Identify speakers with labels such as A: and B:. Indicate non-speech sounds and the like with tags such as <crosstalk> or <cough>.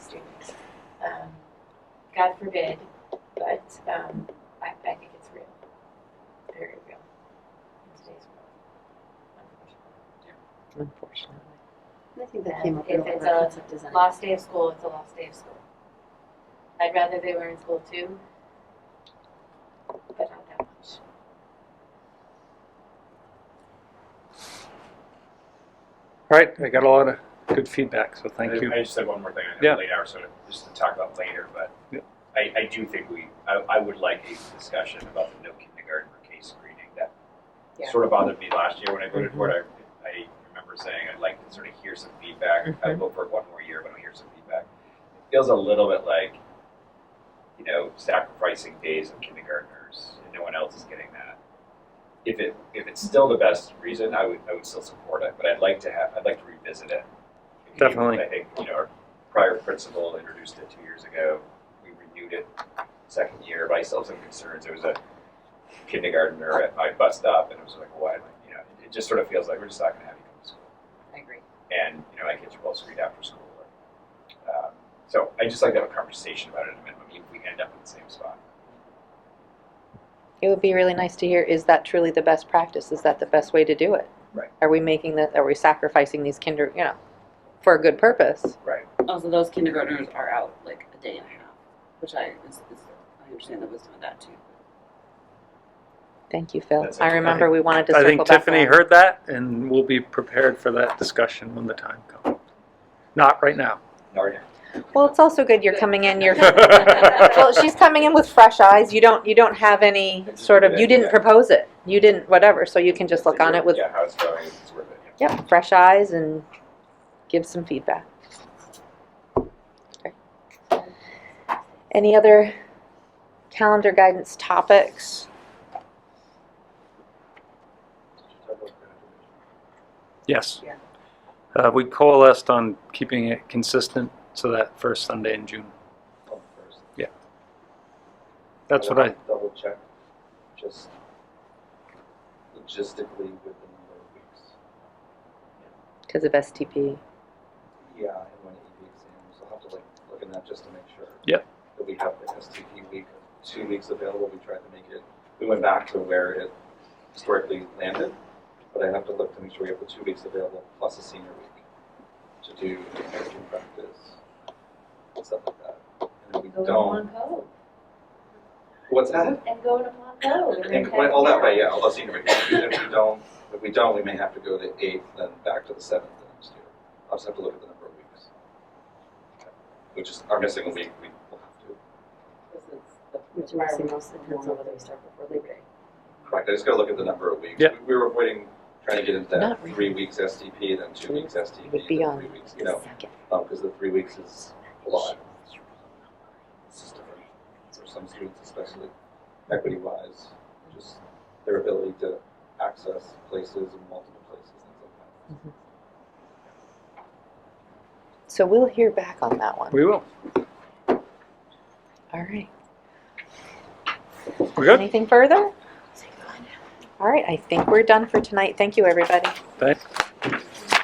A: Um, God forbid, but um, I, I think it's real, very real in today's world.
B: Unfortunately.
C: I think that
A: Yeah,
C: came up
A: if
C: in all
A: it's
C: of
A: a
C: our concept design.
A: Lost day of school, it's a lost day of school. I'd rather they were in school too, but not that much.
D: All right, I got a lot of good feedback, so thank
E: I-
D: you.
E: I just have one more thing. I
D: Yeah.
E: know late hour, so just to talk about later, but
D: Yeah.
E: I, I do think we, I, I would like a discussion about the no kindergartner case screening. That
B: Yeah.
E: sort of bothered me last year when I voted for it.
D: Mm-hmm.
E: I, I remember saying I'd like to sort of hear some feedback. I'd vote for it one more year, but I'll hear some feedback. It feels a little bit like, you know, sacrificing days of kindergartners and no one else is getting that. If it if it's still the best reason, I would I would still support it, but I'd like to have I'd like to revisit it.
D: Definitely.
E: I think you know our prior principal introduced it two years ago. We renewed it second year, but I still have some concerns. There was a kindergartner at my bus stop, and it was like, why? am I- You know, it just sort of feels like we're just not going to have you come to school
B: I agree.
E: and you know I get you well screened after school. Um, so I just like to have a conversation about it at a minimum, even if we end up in the same spot.
F: It would be really nice to hear, is that truly the best practice? Is that the best way to do it?
E: Right.
F: Are we making that, are we sacrificing these kinder, you know, for a good purpose?
G: Also, those kindergartners are out like a day and a half, which I is, is, I understand the wisdom of that
F: <laughs>
G: too.
F: Thank you, Phil.
E: That's
F: I
E: okay.
F: remember we wanted to
D: I
F: circle
D: think
F: back.
D: Tiffany
F: around.
D: heard that, and we'll be prepared for that discussion when the time comes. Not right now.
E: Narnia.
F: Well, it's also good you're coming in, you're, <laughs> well,
D: Well,
F: she's coming in with fresh eyeyes. You don't, you don't have any
E: That's a
F: sort
E: good
F: of, you didn't
E: idea.
F: propose it. You didn't, whatever, so you can just look on it with,
E: yeah, how it's going, if it's worth it. Yeah.
F: yep, fresh eyes and give some feedback. Okay. Any other calendar guidance topics?
D: Yes.
B: Yeah.
D: Uh, we coalesced on keeping it consistent so that first Sunday in June.
E: Oh, first.
D: That's what I,
H: Double check, just logistically with the number of weeks.
F: Because of STP.
H: Yeah, and when EB exams, I'll have to like look at that just to make sure.
D: Yep.
H: That we have the STP week, two weeks available, we tried to make it, we went back to where it historically landed, but I have to look to make sure we have the two weeks available plus a senior week to do American practice, and stuff like that. And if we
A: Go to
H: don't,
A: Plum Cove
H: what's that?
A: and go to Plum Cove. and
H: And
A: then
H: went
A: head
H: all that
A: down.
H: way, yeah, all those senior weeks. If we don't, if we don't, we may have to go to eighth, then back to the seventh the next year. I'll just have to look at the number of weeks. Which is, our missing a week, we will have to.
B: This is the
C: Which
B: prior
C: makes
B: week
C: the most
B: depends on whether we start before Labor Day.
H: Correct, I just gotta look at the number of weeks.
D: Yeah.
H: We- We were avoiding trying to get into
F: Not
H: that
F: really.
H: three weeks STP, then two weeks
F: It
H: STP,
F: would be
H: then
F: on
H: three weeks, you know,
F: Second.
H: because Um, the three weeks is a lot. It's just different For some students, especially equity-wise, just their ability to access places in multiple places, things like that.
F: So we'll hear back on that one.
D: we will.
F: All right.
D: We're good?
F: Anything further? All right, I think we're done for tonight. Thank you, everybody.
D: Thanks.